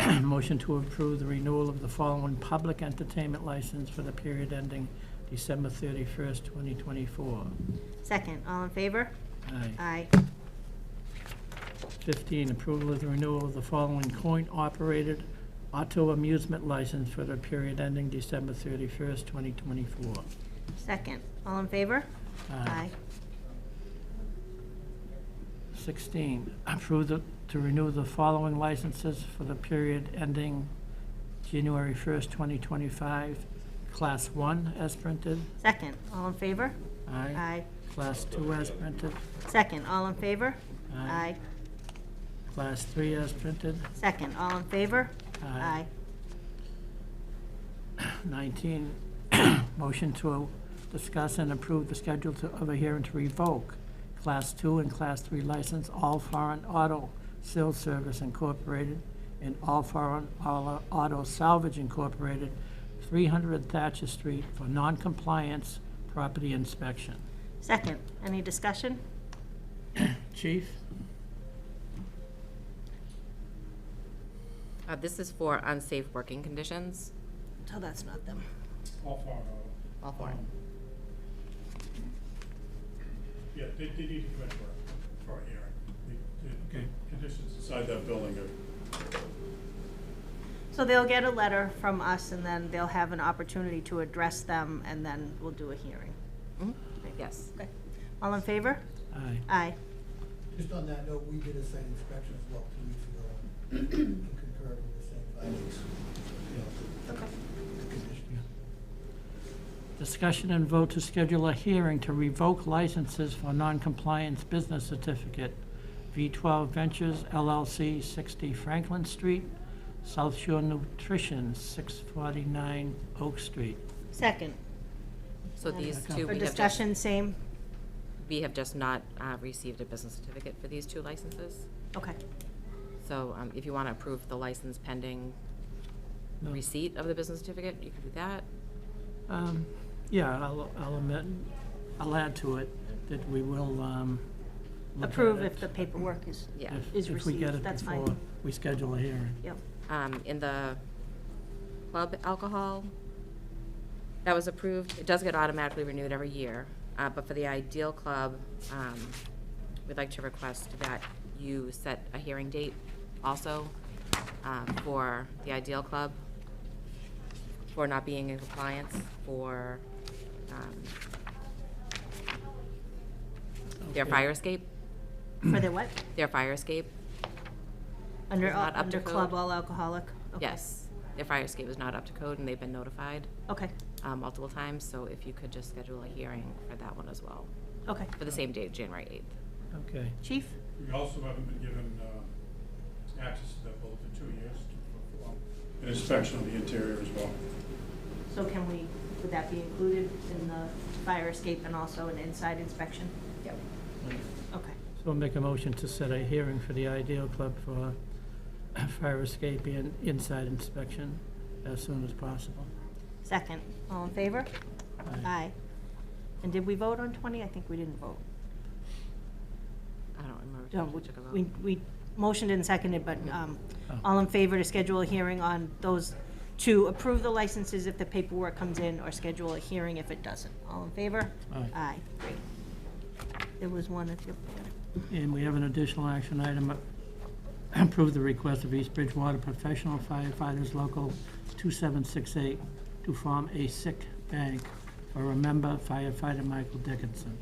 Motion to approve the renewal of the following public entertainment license for the period ending December 31st, 2024. Second, all in favor? Aye. Aye. 15, approval of the renewal of the following coin-operated auto amusement license for the period ending December 31st, 2024. Second, all in favor? Aye. 16, approve the- to renew the following licenses for the period ending January 1st, 2025. Class 1 as printed. Second, all in favor? Aye. Aye. Class 2 as printed. Second, all in favor? Aye. Class 3 as printed. Second, all in favor? Aye. 19, motion to discuss and approve the schedule to- of a hearing to revoke Class 2 and Class 3 license, All Foreign Auto Sales Service Incorporated and All Foreign Auto Auto Salvage Incorporated, 300 Thatcher Street for noncompliance property inspection. Second, any discussion? Chief? Uh, This is for unsafe working conditions, So that's not them. All farm all four. Um, Yeah, they, they need to come in for, for a hearing. The, the Okay. conditions inside that building are, So they'll get a letter from us, and then they'll have an opportunity to address them, and then we'll do a hearing. Mhm. Yes. Okay. All in favor? Aye. Aye. Just on that note, we did a site inspection as well two weeks ago and concurred with the same findings, you know, Okay. the conditions. Discussion and vote to schedule a hearing to revoke licenses for noncompliance business certificate, V12 Ventures LLC, 60 Franklin Street, South Shore Nutrition, 649 Oak Street. Second, So these two, for we have just, discussion, same? we have just not uh, received a business certificate for these two licenses. Okay. So um, if you want to approve the license pending No. receipt of the business certificate, you can do that. Um, Yeah, I'll I'll admit, I'll add to it that we will um, look at Approve it if the paperwork is, Yeah. if- is If we get received, it that's fine. before we schedule a hearing. yep. Um, In the club alcohol, that was approved, it does get automatically renewed every year. uh, But for the Ideal Club, um, we'd like to request that you set a hearing date also um, for the Ideal Club for not being in compliance for um, their Okay. fire escape, For the what? their fire escape. Under, It's not up under to club code. all alcoholic? Okay. Yes, their fire escape is not up to code and they've been notified. Okay, uh, multiple times, so if you could just schedule a hearing for that one as well, okay. for the same date, January 8th. Okay. Chief? we also haven't been given, uh, access to that building for two years to perform an inspection of the interior as well. So can we, would that be included in the fire escape and also an inside inspection? Yep. Okay. So I'll make a motion to set a hearing for the Ideal Club for fire escape and inside inspection as soon as possible. Second, all in favor? Aye. Aye. And did we vote on 20? I think we didn't vote. I don't remember. No, if we- took a vote. We, we motioned and seconded, but um, Oh. all in favor to schedule a hearing on those, to approve the licenses if the paperwork comes in, or schedule a hearing if it doesn't. All in favor? Aye. Aye, great. There was one at the, And we have an additional action item, uh, approve the request of East Bridgewater Professional Firefighters Local 2768 to form a sick bank for a member firefighter Michael Dickinson.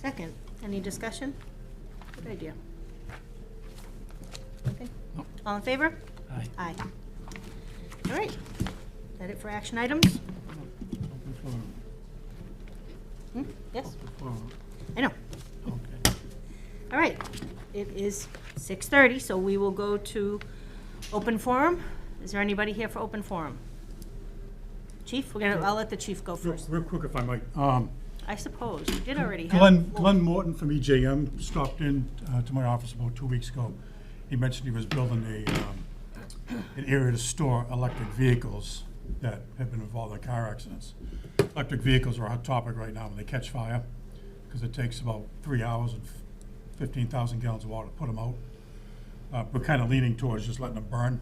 second, any discussion? Good idea. Okay. Nope. All in favor? Aye. Aye. All right, is that it for action items? Open forum, Hmm? Yes, open forum. I know. Okay. All right, it is 6:30, so we will go to open forum. Is there anybody here for open forum? Chief, we're gonna, I'll let the chief go Real, first. real quick, if I might, um, I suppose, you did already have. Glenn, Glenn Morton from EJM stopped in uh, to my office about two weeks ago. He mentioned he was building a, um, an area to store electric vehicles that have been involved in car accidents. Electric vehicles are a hot topic right now when they catch fire, because it takes about three hours and fifteen thousand gallons of water to put them out. Uh, We're kind of leaning towards just letting them burn